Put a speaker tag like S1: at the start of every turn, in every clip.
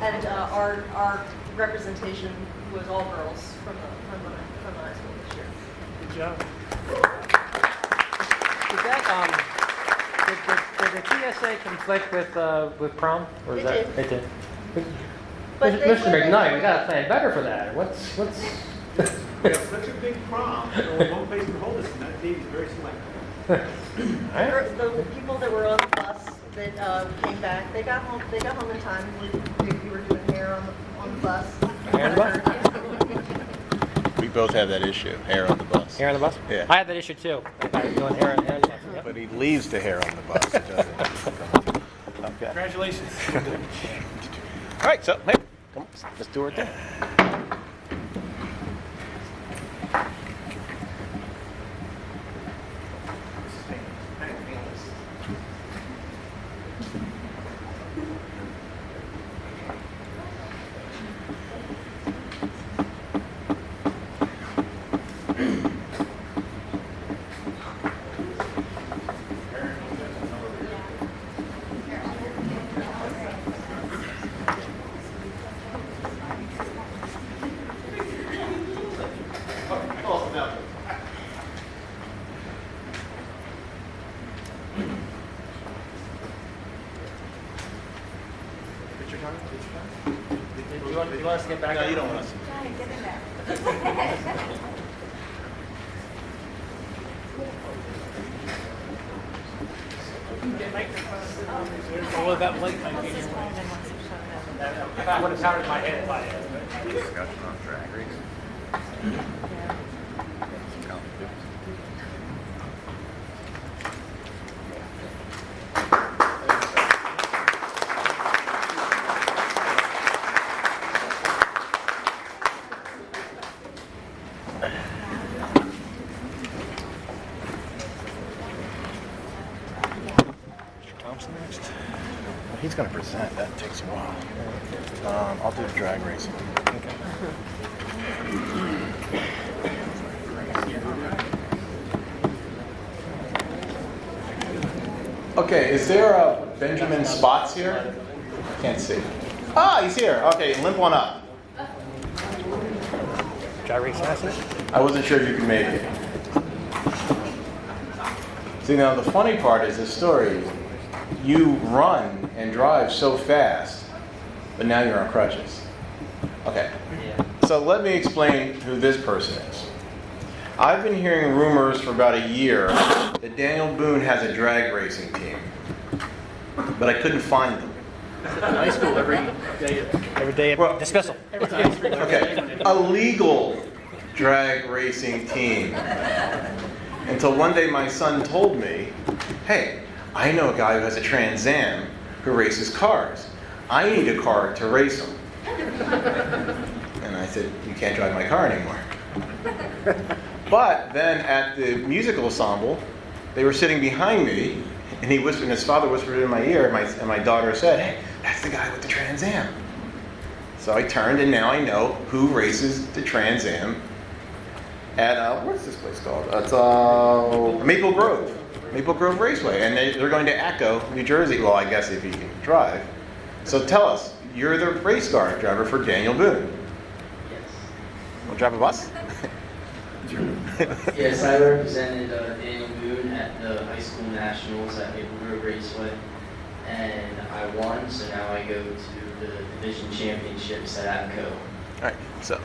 S1: And uh, our, our representation was all girls from the, from the, from the high school this year.
S2: Good job.
S3: Is that, um, did, did, did the TSA conflict with, uh, with prom? Or is
S1: It
S3: that,
S1: did.
S3: It did.
S1: But
S3: Mr.
S1: they
S3: Mr.
S1: were-
S3: McKnight, we gotta plan better for that. What's, what's,
S2: We have such a big prom, so we won't face the holders, and that team is very select.
S3: all right.
S1: The the people that were on the bus that uh, came back, they got home, they got home in time. We, we were doing hair on the, on the bus.
S3: Hair on the bus?
S4: We both have that issue, hair on the bus.
S3: Hair on the bus?
S4: Yeah.
S3: I had that issue too. I thought I was doing hair on, hair on the bus. Yep.
S4: But he leaves the hair on the bus. He doesn't. okay.
S2: Congratulations.
S4: All right, so hey, come, let's do our thing.
S3: Do you want, do you want us to get back?
S4: No,
S3: on?
S4: you don't want us.
S2: All of that late night meeting. If I would have pounded my head by it.
S4: Discussion on drag race. Mr. Thompson next. Well, He's gonna present, that takes a while. Um, I'll do drag racing. Okay, is there a Benjamin Spots here? Can't see. Ah, he's here, okay, limp one up.
S3: Dry race classes?
S4: I wasn't sure if you could make it. See, now the funny part is the story. You run and drive so fast, but now you're on crutches. Okay. So let me explain who this person is. I've been hearing rumors for about a year that Daniel Boone has a drag racing team, but I couldn't find them.
S2: High school every day.
S3: Every day of
S4: Well-
S3: dismissal.
S4: Okay, a legal drag racing team. Until one day my son told me, hey, I know a guy who has a Trans Am who races cars. I need a car to race him. And I said, you can't drive my car anymore. But then at the musical ensemble, they were sitting behind me, and he whispered, and his father whispered in my ear, and my, and my daughter said, hey, that's the guy with the Trans Am. So I turned, and now I know who races the Trans Am at uh, what's this place called? It's uh, Maple Grove, Maple Grove Raceway, and they, they're going to Echo, New Jersey. Well, I guess if you can drive. So tell us, you're the race car driver for Daniel Boone. We'll drive a bus.
S5: Yes, I represented uh, Daniel Boone at the high school nationals at Maple Grove Raceway, and I won, so now I go to the division championships at APCO.
S4: All right. So.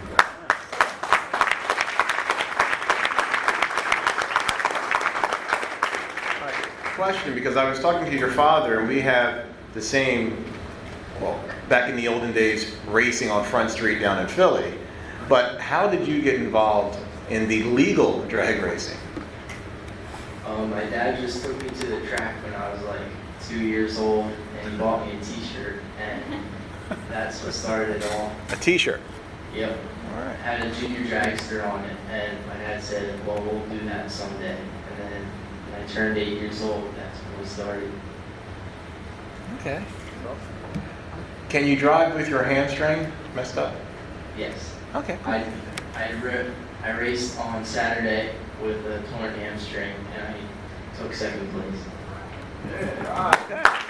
S4: Question, because I was talking to your father, and we have the same, well, back in the olden days, racing on Front Street down in Philly. But how did you get involved in the legal drag racing?
S5: Um, my dad just took me to the track when I was like two years old, and he bought me a T-shirt, and that's what started it all.
S4: A T-shirt.
S5: Yep,
S4: All right.
S5: had a junior dragster on it, and my dad said, "Well, we'll do that someday." And then when I turned eight years old, that's when we started.
S4: Okay. Can you drive with your hamstring messed up?
S5: Yes.
S4: Okay.
S5: I, I, ri- I raced on Saturday with a torn hamstring and I took second place.
S4: All